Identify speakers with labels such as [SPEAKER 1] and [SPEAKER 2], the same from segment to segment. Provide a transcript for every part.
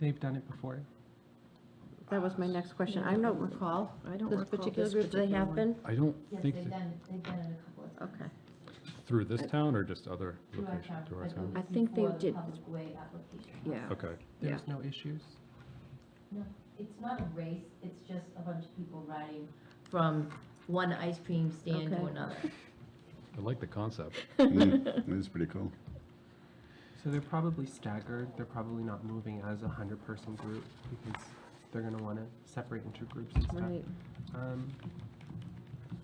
[SPEAKER 1] They've done it before.
[SPEAKER 2] That was my next question. I don't recall
[SPEAKER 3] I don't
[SPEAKER 2] this
[SPEAKER 3] recall
[SPEAKER 2] particular
[SPEAKER 3] this
[SPEAKER 2] group, they
[SPEAKER 3] particular
[SPEAKER 2] have
[SPEAKER 3] one.
[SPEAKER 2] been?
[SPEAKER 4] I don't
[SPEAKER 5] Yes,
[SPEAKER 4] think,
[SPEAKER 5] they've
[SPEAKER 4] that-
[SPEAKER 5] done, they've done it a couple of times.
[SPEAKER 2] Okay.
[SPEAKER 4] through this town or just other
[SPEAKER 5] Through our
[SPEAKER 4] location,
[SPEAKER 5] town,
[SPEAKER 4] through our
[SPEAKER 5] but it
[SPEAKER 4] town?
[SPEAKER 3] I
[SPEAKER 5] was
[SPEAKER 3] think they
[SPEAKER 5] before the
[SPEAKER 3] did-
[SPEAKER 5] Public way application.
[SPEAKER 3] Yeah.
[SPEAKER 4] Okay,
[SPEAKER 1] There's no issues.
[SPEAKER 5] No, it's not a race, it's just a bunch of people riding from one ice cream stand to
[SPEAKER 2] Okay.
[SPEAKER 5] another.
[SPEAKER 4] I like the concept.
[SPEAKER 6] Mm, It is pretty cool.
[SPEAKER 1] So they're probably staggered. They're probably not moving as a hundred person group because they're gonna want to separate into groups and stuff.
[SPEAKER 3] Right.
[SPEAKER 1] Um,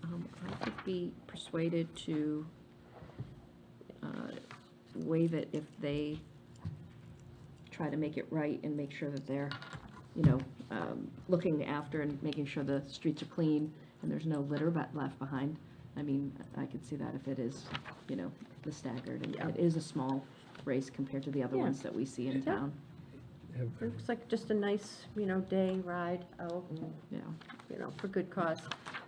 [SPEAKER 3] Um, I could be persuaded to uh, waive it if they try to make it right and make sure that they're, you know, um, looking after and making sure the streets are clean and there's no litter but left behind. I mean, I could see that if it is, you know, the staggered, and it is a small race compared to the other
[SPEAKER 2] Yeah.
[SPEAKER 3] ones that we see in
[SPEAKER 2] Yeah.
[SPEAKER 3] town,
[SPEAKER 2] Looks like just a nice, you know, day ride out,
[SPEAKER 3] Yeah.
[SPEAKER 2] you know, for good cause.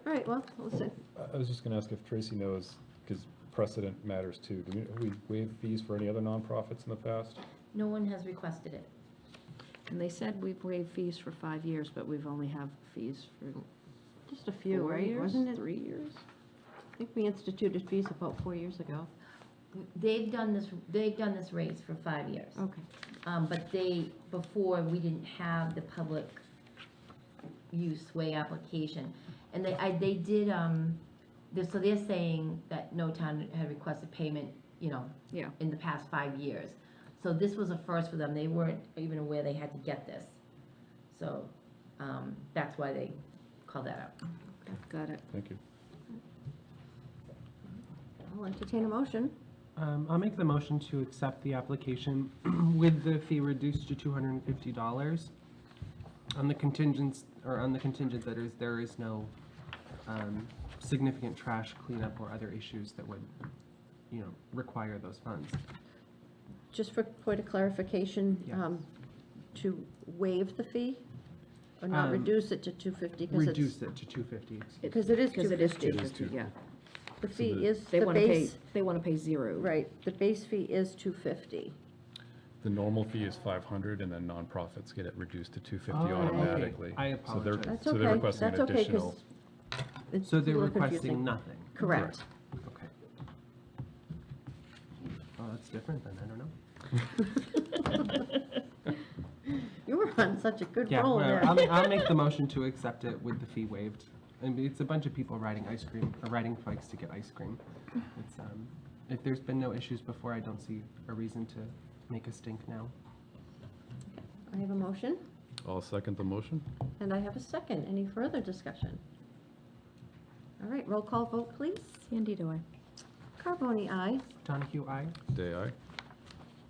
[SPEAKER 2] All right, well, listen,
[SPEAKER 4] I was just gonna ask if Tracy knows, because precedent matters too. Do we waive fees for any other nonprofits in the past?
[SPEAKER 5] No one has requested it.
[SPEAKER 3] And they said we've waived fees for five years, but we've only have fees for
[SPEAKER 2] just a few,
[SPEAKER 3] four
[SPEAKER 2] right?
[SPEAKER 3] years,
[SPEAKER 2] Wasn't it,
[SPEAKER 3] three years?
[SPEAKER 2] I think we instituted fees about four years ago.
[SPEAKER 5] They've done this, they've done this race for five years.
[SPEAKER 2] Okay.
[SPEAKER 5] Um, but they, before, we didn't have the public use way application. And they, I, they did, um, they're, so they're saying that no town had requested payment, you know,
[SPEAKER 3] Yeah.
[SPEAKER 5] in the past five years. So this was a first for them. They weren't even aware they had to get this. So, um, that's why they called that out.
[SPEAKER 3] Got it.
[SPEAKER 4] Thank you.
[SPEAKER 2] I'll entertain a motion.
[SPEAKER 1] Um, I'll make the motion to accept the application with the fee reduced to two hundred and fifty dollars. On the contingents, or on the contingent that is, there is no, um, significant trash cleanup or other issues that would, you know, require those funds.
[SPEAKER 2] Just for point of clarification,
[SPEAKER 1] Yes.
[SPEAKER 2] um, to waive the fee or not
[SPEAKER 1] Um,
[SPEAKER 2] reduce it to 250 because it's,
[SPEAKER 1] Reduce it to two fifty.
[SPEAKER 2] because it is
[SPEAKER 3] Because it is
[SPEAKER 2] 250.
[SPEAKER 3] 250, yeah.
[SPEAKER 2] The fee
[SPEAKER 4] the-
[SPEAKER 2] is
[SPEAKER 3] They
[SPEAKER 2] the
[SPEAKER 3] want to pay,
[SPEAKER 2] base,
[SPEAKER 3] they want to pay zero.
[SPEAKER 2] right, the base fee is 250.
[SPEAKER 4] The normal fee is five hundred and then nonprofits get it reduced to two fifty
[SPEAKER 1] Oh, okay.
[SPEAKER 4] automatically.
[SPEAKER 1] I
[SPEAKER 4] So they're-
[SPEAKER 1] apologize.
[SPEAKER 2] That's
[SPEAKER 4] So they're
[SPEAKER 2] okay,
[SPEAKER 4] requesting
[SPEAKER 2] that's
[SPEAKER 4] an
[SPEAKER 2] okay,
[SPEAKER 4] additional,
[SPEAKER 2] because it's
[SPEAKER 1] So
[SPEAKER 2] a
[SPEAKER 1] they're
[SPEAKER 2] little
[SPEAKER 1] requesting
[SPEAKER 2] confusing.
[SPEAKER 1] nothing.
[SPEAKER 2] Correct.
[SPEAKER 1] Okay. Well, that's different then, I don't know.
[SPEAKER 2] You were on such a good
[SPEAKER 1] Yeah,
[SPEAKER 2] roll
[SPEAKER 1] well,
[SPEAKER 2] there.
[SPEAKER 1] I'll, I'll make the motion to accept it with the fee waived. I mean, it's a bunch of people riding ice cream, or riding bikes to get ice cream. It's, um, if there's been no issues before, I don't see a reason to make a stink now.
[SPEAKER 2] I have a motion,
[SPEAKER 4] I'll second the motion.
[SPEAKER 2] and I have a second. Any further discussion? All right, roll call vote, please.
[SPEAKER 3] Candido, I.
[SPEAKER 2] Carbone, aye.
[SPEAKER 1] Donahue, aye?
[SPEAKER 4] Day aye.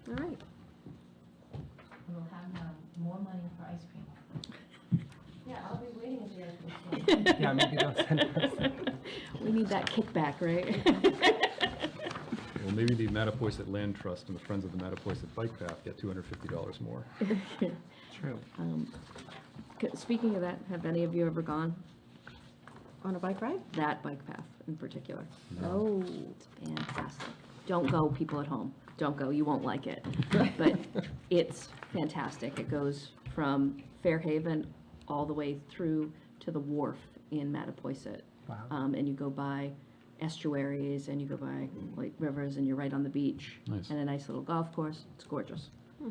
[SPEAKER 2] All right.
[SPEAKER 5] We'll have, um, more money for ice cream. Yeah, I'll be waiting if you guys will.
[SPEAKER 1] Yeah, maybe they'll send us.
[SPEAKER 3] We need that kickback, right?
[SPEAKER 4] Well, maybe the Mattapoisett Land Trust and the Friends of the Mattapoisett Bike Path get two hundred fifty dollars more.
[SPEAKER 1] True.
[SPEAKER 3] Um, c- Speaking of that, have any of you ever gone
[SPEAKER 2] On a bike ride?
[SPEAKER 3] that bike path in particular?
[SPEAKER 2] Oh.
[SPEAKER 3] It's fantastic. Don't go, people at home. Don't go, you won't like it. But it's fantastic. It goes from Fairhaven all the way through to the wharf in Mattapoisett.
[SPEAKER 1] Wow.
[SPEAKER 3] um, and you go by estuaries and you go by like rivers and you're right on the beach.
[SPEAKER 4] Nice.
[SPEAKER 3] And a nice little golf course. It's gorgeous.
[SPEAKER 2] Hmm.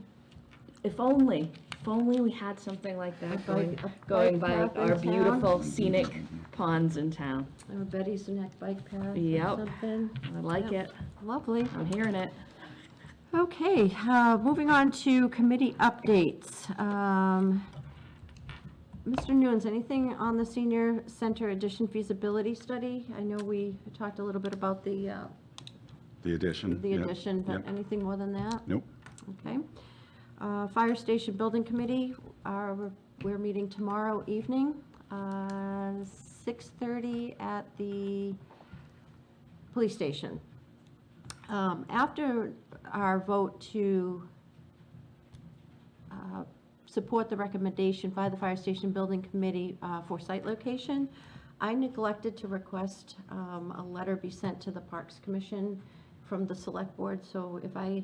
[SPEAKER 3] If only, if only we had something like that going,
[SPEAKER 2] bike- a
[SPEAKER 3] going
[SPEAKER 2] bike
[SPEAKER 3] by
[SPEAKER 2] path in
[SPEAKER 3] our
[SPEAKER 2] town?
[SPEAKER 3] beautiful scenic ponds in town.
[SPEAKER 2] I have a Betty's Neck bike path or
[SPEAKER 3] Yep.
[SPEAKER 2] something.
[SPEAKER 3] I like
[SPEAKER 2] Yeah.
[SPEAKER 3] it.
[SPEAKER 2] Lovely.
[SPEAKER 3] I'm hearing it.
[SPEAKER 2] Okay, uh, moving on to committee updates. Um, Mr. Nunes, anything on the senior center addition feasibility study? I know we talked a little bit about the, uh,
[SPEAKER 6] The addition.
[SPEAKER 2] the
[SPEAKER 6] yeah.
[SPEAKER 2] addition, but
[SPEAKER 6] Yep.
[SPEAKER 2] anything more than that?
[SPEAKER 6] Nope.
[SPEAKER 2] Okay. Uh, Fire Station Building Committee, uh, we're- we're meeting tomorrow evening, uh, 6:30 at the police station. Um, After our vote to uh, support the recommendation by the Fire Station Building Committee uh, for site location, I neglected to request um, a letter be sent to the Parks Commission from the Select Board, so if I